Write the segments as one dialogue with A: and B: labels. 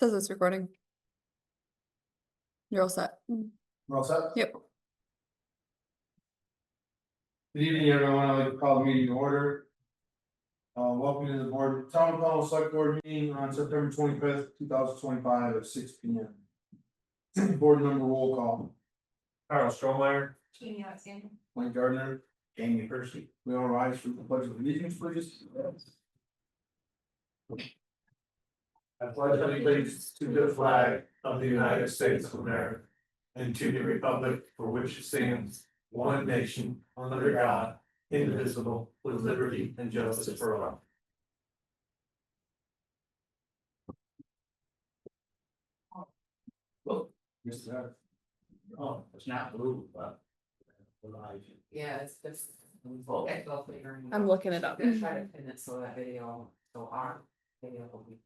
A: Does this recording? You're all set. Mm.
B: We're all set?
A: Yep.
B: Good evening, everyone. I'd like to call the meeting to order. Uh, welcome to the board, town hall select board meeting on September twenty fifth, two thousand twenty five at six P M. Board member roll call,
C: Carl Strohmeyer,
D: Jamie Alexander.
B: Mike Gardner,
C: Jamie Percy.
B: we all rise for the pledge of allegiance, please.
C: I pledge allegiance to the flag of the United States of America and to the republic for which it stands, one nation, under God, indivisible, with liberty and justice for all.
B: Yes, sir.
C: Oh, it's not blue, but.
D: Yeah, it's just.
C: Well,
D: that's all for your-
A: I'm looking it up.
D: Gonna try to pin it so that video, so our video will be.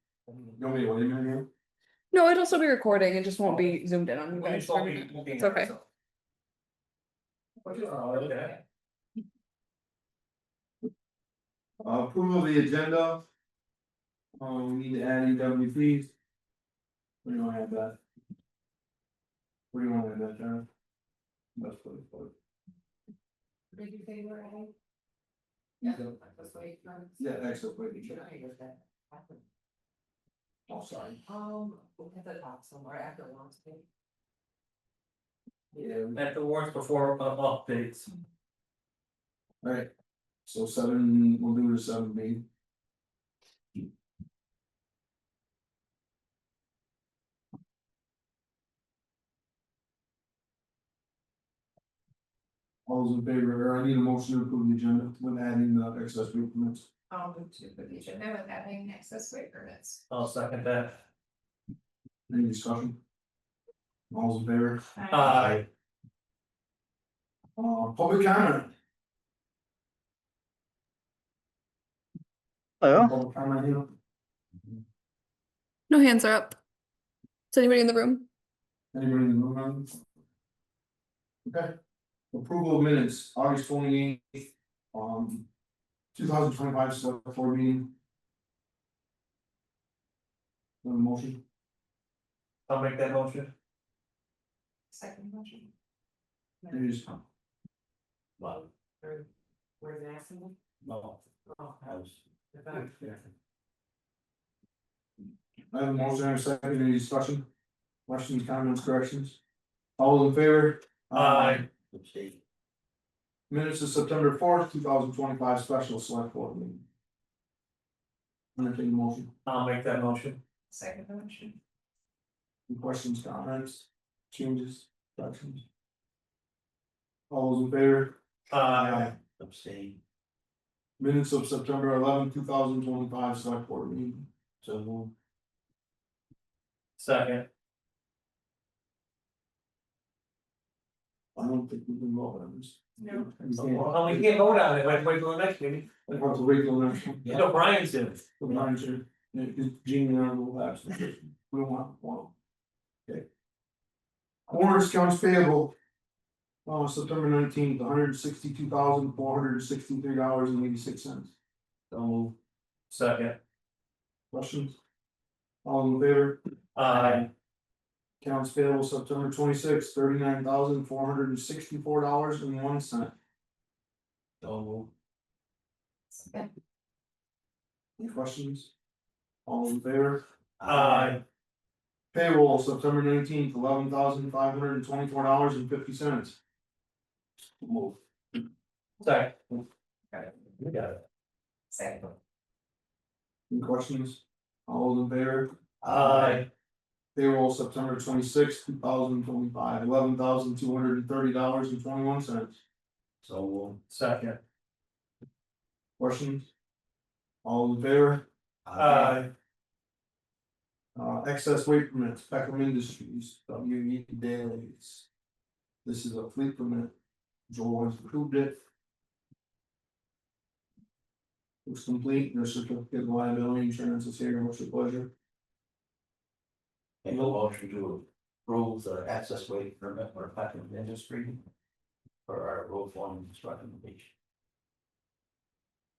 B: You want me to wait a minute here?
A: No, it'll still be recording. It just won't be zoomed in on you guys. for a minute. It's okay.
C: Okay.
B: Uh, Approval of the agenda. Um, we need to add EWPs. What do you wanna add that? What do you wanna add that, John? That's what it's for.
D: Did you say we're ahead?
B: Yeah.
D: That's what you meant.
B: Yeah, excellent, what you
D: You know,
B: said.
D: I guess that happened.
B: Oh, sorry.
D: Um, we have to talk somewhere after lunch. maybe.
B: Yeah, we-
C: At the warrants before uh, updates.
B: alright. So seven, we'll do the seven B. All those in favor, or I need a motion to approve the agenda when adding the accessory permits.
E: I'll move to the agenda with adding access way permits.
C: I'll second that.
B: Any discussion? All's in favor,
C: Aye.
B: uh, public comment?
F: Hello,
B: Public comment here.
A: No hands are up. Is anybody in the room?
B: Anybody in the room? on this? Okay, approval of minutes, August twenty eighth, um. Two thousand twenty five select board meeting. Want a motion,
C: I'll make that motion.
E: Second motion.
B: Any dis-
C: Well,
D: Mm. Or Where's the accident?
C: no,
D: Oh,
C: I was.
D: the back.
B: I have a motion and a second, any discussion? Questions, comments, corrections? All in favor?
C: Aye.
B: Minutes of September fourth, two thousand twenty five special select board meeting. Entertained motion,
C: I'll make that motion.
E: Second motion.
B: Any questions, comments, changes, corrections? All those in favor?
C: Aye. Abstain.
B: Minutes of September eleventh, two thousand twenty five select board meeting. So move.
C: Second.
B: I don't think we can vote on this.
E: No.
B: We can't.
C: Well, we can't vote on it, let's wait till the next meeting.
B: We'll have to wait till next one.
C: You know, Brian's in it.
B: The lines are, is Jean and I will have some, we don't want one. Okay. Warrants accounts payable. Uh, September nineteenth, hundred and sixty-two thousand, four hundred and sixty-three dollars and eighty-six cents. So,
C: Second.
B: questions? All in favor,
C: Aye.
B: accounts payable September twenty-sixth, thirty-nine thousand, four hundred and sixty-four dollars and one cent. So,
E: Second.
B: any questions? All in favor?
C: Aye.
B: Payroll September nineteenth, eleven thousand five hundred and twenty-four dollars and fifty cents. Move.
C: Second. You got it.
E: Second.
B: Any questions? All those in favor?
C: Aye.
B: Payroll September twenty-sixth, two thousand twenty-five, eleven thousand two hundred and thirty dollars and twenty-one cents.
C: So. Second.
B: Questions? All in favor?
C: Aye.
B: Uh, excess weight permits, Peckham Industries, W E Dailies. This is a fleet permit. Joel has approved it. Looks complete, their certificate of liability insurance is here, what's your pleasure?
G: Make a motion to approve the access way permit for Peckham Industry. For our road form construction application.